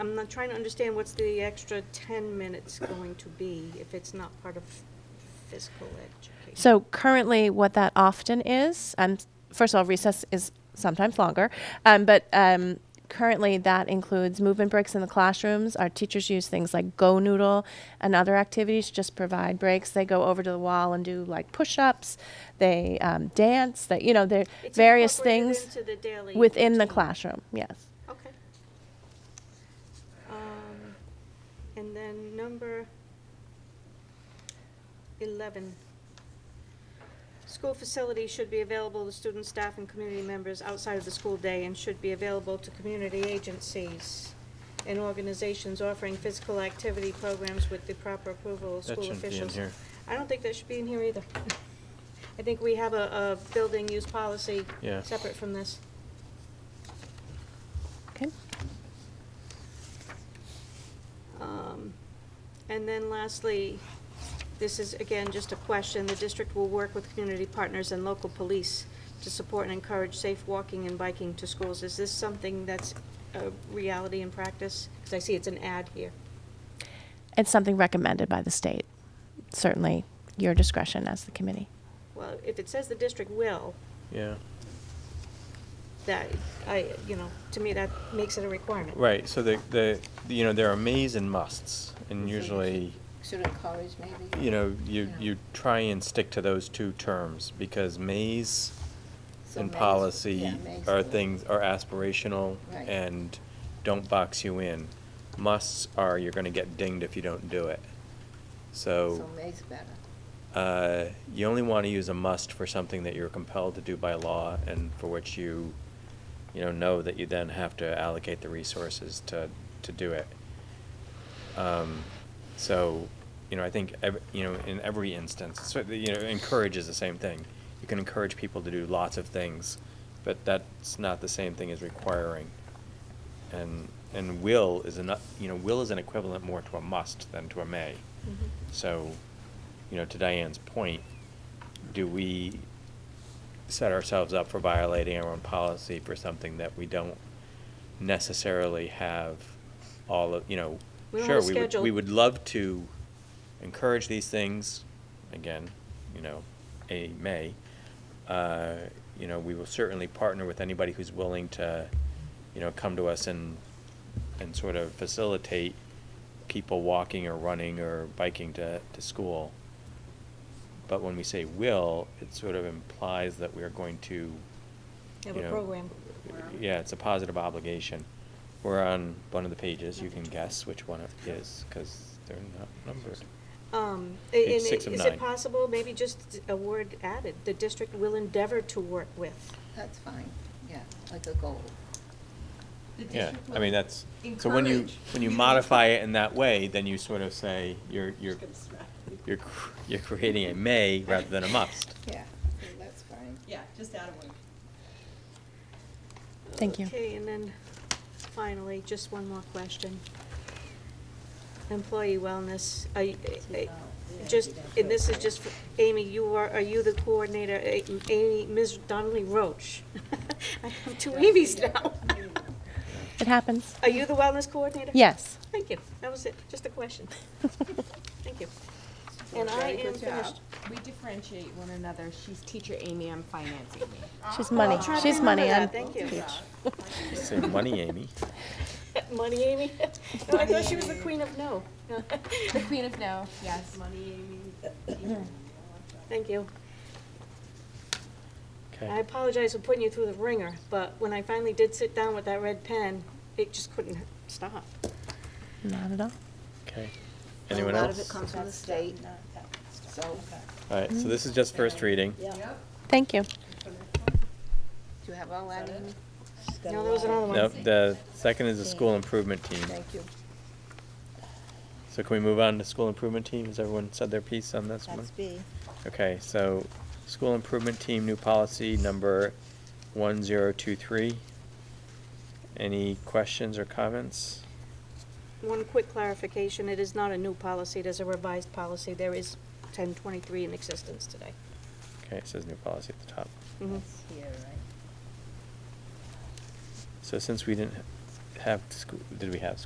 I'm not trying to understand what's the extra 10 minutes going to be if it's not part of physical education. So currently, what that often is, um, first of all, recess is sometimes longer, um, but um, currently that includes movement breaks in the classrooms. Our teachers use things like Go Noodle and other activities to just provide breaks. They go over to the wall and do like push-ups. They um, dance. That you know, there It's various incorporated things into the daily within the routine. classroom. Yes. Okay. Um, And then number 11. School facilities should be available to students, staff, and community members outside of the school day and should be available to community agencies and organizations offering physical activity programs with the proper approval of That school shouldn't be in officials. here. I don't think that should be in here either. I think we have a, a building use policy Yeah. separate from this. Okay. Um, And then lastly, this is again just a question, the district will work with community partners and local police to support and encourage safe walking and biking to schools. Is this something that's a reality in practice? Because I see it's an ad here. It's something recommended by the state. Certainly, your discretion as the committee. Well, if it says the district will, Yeah, that, I, you know, to me, that makes it a requirement. right, so the, the, you know, there are mays and musts, and So you usually, should should encourage maybe. you know, you, Yeah. you try and stick to those two terms, because mays So and May's- policy yeah, May's are the- things, are aspirational Right. and don't box you in. Musts are, you're gonna get dinged if you don't do it. So So, May's better. uh, you only wanna use a must for something that you're compelled to do by law, and for which you, you know, know that you then have to allocate the resources to, to do it. Um, so, you know, I think, ev- you know, in every instance, so, you know, encourage is the same thing. You can encourage people to do lots of things, but that's not the same thing as requiring. And, and will is an, you know, will is an equivalent more to a must than to a may. Mhm. So, you know, to Diane's point, do we set ourselves up for violating our own policy for something that we don't necessarily have all of, you know, We don't have a sure, we would, we schedule. would love to encourage these things, again, you know, a may. Uh, you know, we will certainly partner with anybody who's willing to, you know, come to us and, and sort of facilitate people walking or running or biking to, to school. But when we say will, it sort of implies that we are going to, Have you a know, program. Yeah, it's a positive obligation. We're on one of the pages, you can guess which one it is, because they're not numbered. Um, a- Page and six i- of is nine. it possible, maybe just a word added, the district will endeavor to work with? That's fine, yeah, like a goal. Yeah, I mean, that's, so when you, when you modify it in that way, then you sort of say, you're, you're, you're, cr- you're creating a may rather than a must. Yeah, so that's fine. Yeah, just add a word. Thank you. Okay, and then finally, just one more question. Employee wellness, I, I- eh, just, and this is just for Amy, you are, are you the coordinator, A- Amy, Ms. Donnelly Roach? I have two Amy's now. It happens. Are you the wellness coordinator? Yes. Thank you, that was it, just a question. Thank you. And I Very am good job. finished. We differentiate one another. She's teacher Amy, I'm finance Amy. She's money. I'll try to She's money. remember I'm- that. Thank you. Say money, Amy. Money, Amy? No, I thought she was the queen of no. The queen of no, yes. Thank you. I Okay, apologize for putting you through the ringer, but when I finally did sit down with that red pen, it just couldn't stop. Not at all. okay. Anyone A lot of it else? comes from the state, so All right, so this is just Mm-hmm. first reading. Thank you. do you have all that in? No, there was another one. No, the second is the school improvement team. Thank you. So can we move on to school improvement team? Has everyone said their piece on this one? That's B. Okay, so school improvement team, new policy number one zero two three. Any questions or comments? One quick clarification, it is not a new policy, it is a revised policy. There is 1023 in existence today. Okay, it says new policy at the top. Mhm. Yeah, right. So since we didn't have, school, did we have